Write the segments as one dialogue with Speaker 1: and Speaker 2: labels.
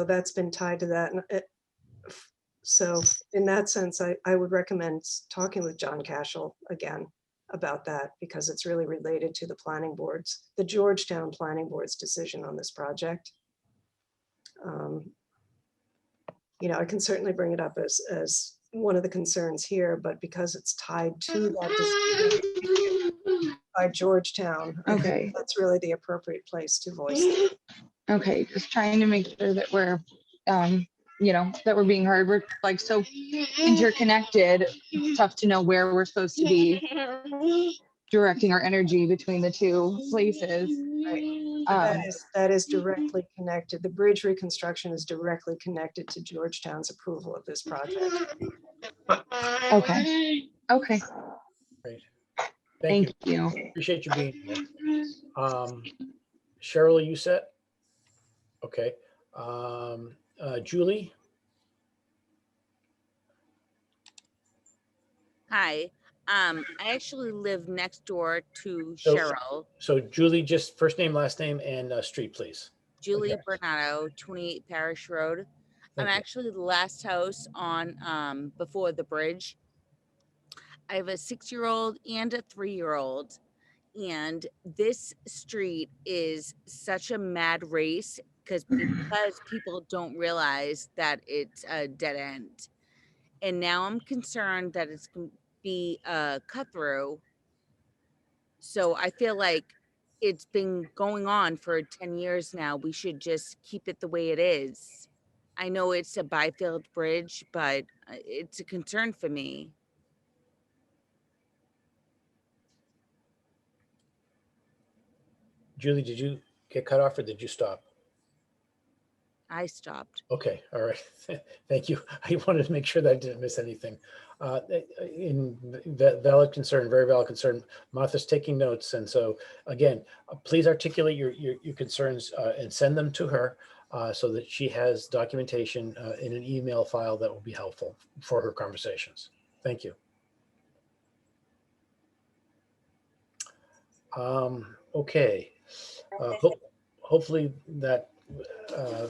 Speaker 1: So that's been tied to that. And it- So in that sense, I, I would recommend s- talking with John Cashel again about that because it's really related to the planning boards, the Georgetown Planning Board's decision on this project. Um, You know, I can certainly bring it up as, as one of the concerns here, but because it's tied to that decision by Georgetown, I think
Speaker 2: Okay.
Speaker 1: that's really the appropriate place to voice. it.
Speaker 2: Okay, just trying to make sure that we're, um, you know, that we're being heard. We're like so interconnected. Tough to know where we're supposed to be directing our energy between the two places. Um,
Speaker 1: That is, that is directly connected. The bridge reconstruction is directly connected to Georgetown's approval of this project.
Speaker 2: Okay. okay,
Speaker 3: Thank
Speaker 2: thank
Speaker 3: you.
Speaker 2: you.
Speaker 3: Appreciate you being here. Um, Cheryl, are you set? Okay. Um, uh, Julie,
Speaker 4: Hi, um, I actually live next door to
Speaker 3: So-
Speaker 4: Cheryl,
Speaker 3: so Julie, just first name, last name and uh, street, please.
Speaker 4: Julie
Speaker 3: Okay.
Speaker 4: Bernardo, twenty-eight Parish Road. I'm
Speaker 3: Thank you.
Speaker 4: actually the last house on, um, before the bridge. I have a six-year-old and a three-year-old. And this street is such a mad race because, because people don't realize that it's a dead end. And now I'm concerned that it's gonna be a cut-through. So I feel like it's been going on for 10 years now. We should just keep it the way it is. I know it's a Byfield Bridge, but uh, it's a concern for me.
Speaker 3: Julie, did you get cut off or did you stop?
Speaker 4: I stopped.
Speaker 3: Okay, all right. Thank you. I wanted to make sure that I didn't miss anything. Uh, In va- valid concern, very valid concern. Martha's taking notes. And so again, uh, please articulate your, your, your concerns uh, and send them to her uh, so that she has documentation uh, in an email file that will be helpful for her conversations. Thank you. Um, Okay. Uh, ho- Hopefully that uh,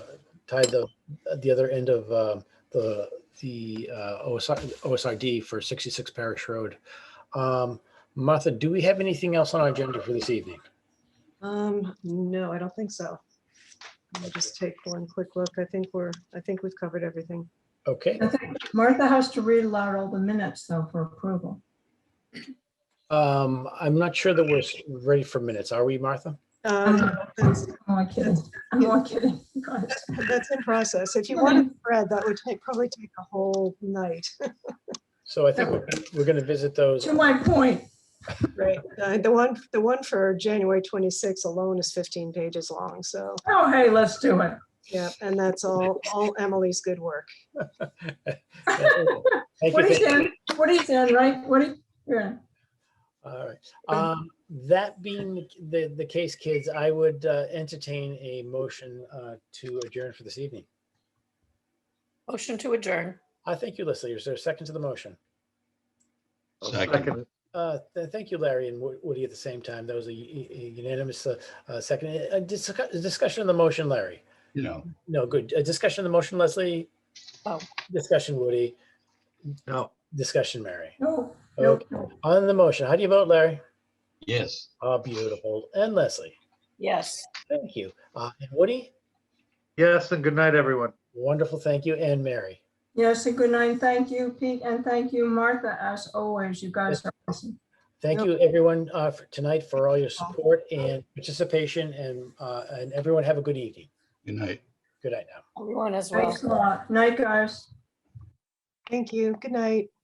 Speaker 3: tied the at the other end of um, the the uh, OSI OSRD for 66 Parish Road. Um, Martha, do we have anything else on our agenda for this evening?
Speaker 1: Um, no, I don't think so. I'll just take one quick look. I think we're, I think we've covered everything.
Speaker 3: Okay.
Speaker 5: I think Martha has to read aloud all the minutes though for approval.
Speaker 3: Um, I'm not sure that we're s- ready for minutes. Are we, Martha?
Speaker 1: Um, That's
Speaker 5: I'm only kidding. I'm only kidding. God.
Speaker 1: that's in process. If you wanted to read, that would take, probably take a whole night.
Speaker 3: So I think we're, we're going to visit those.
Speaker 5: To my point,
Speaker 1: Right. Uh, The one, the one for January 26 alone is 15 pages long, so,
Speaker 5: oh, hey, let's do it.
Speaker 1: yeah, and that's all, all Emily's good work.
Speaker 3: Thank you.
Speaker 5: What
Speaker 3: thank
Speaker 5: he's
Speaker 3: you.
Speaker 5: in, what he's in, right? What he, yeah.
Speaker 3: All right.
Speaker 5: Okay.
Speaker 3: Um, that being the- the, the case, kids, I would uh, entertain a motion uh, to adjourn for this evening.
Speaker 6: Motion to adjourn.
Speaker 3: I thank you, Leslie. Is there a second to the motion?
Speaker 7: Second.
Speaker 3: Uh, th- Thank you, Larry and Wo- Woody at the same time. That was a u- u- unanimous uh, uh, second. A- a discu- a Discussion on the motion, Larry.
Speaker 7: No.
Speaker 3: No, good. A Discussion on the motion, Leslie.
Speaker 6: Oh.
Speaker 3: Discussion, Woody.
Speaker 7: No.
Speaker 3: Discussion, Mary.
Speaker 5: No, no.
Speaker 3: Okay. On the motion, how do you vote, Larry?
Speaker 7: Yes.
Speaker 3: Oh, beautiful. And Leslie,
Speaker 6: Yes.
Speaker 3: thank you. Uh, And Woody,
Speaker 8: Yes, and good night, everyone.
Speaker 3: wonderful, thank you. And Mary.
Speaker 5: Yes, a good night. Thank you, Pete, and thank you, Martha, as always. You guys are awesome.
Speaker 3: Thank
Speaker 1: Yep.
Speaker 3: you, everyone, uh, for tonight for all your support and participation and, uh, and everyone have a good evening.
Speaker 7: Good night.
Speaker 3: Good night now.
Speaker 6: Everyone as well.
Speaker 5: Thanks a lot. Night, guys.
Speaker 1: Thank you. Good night.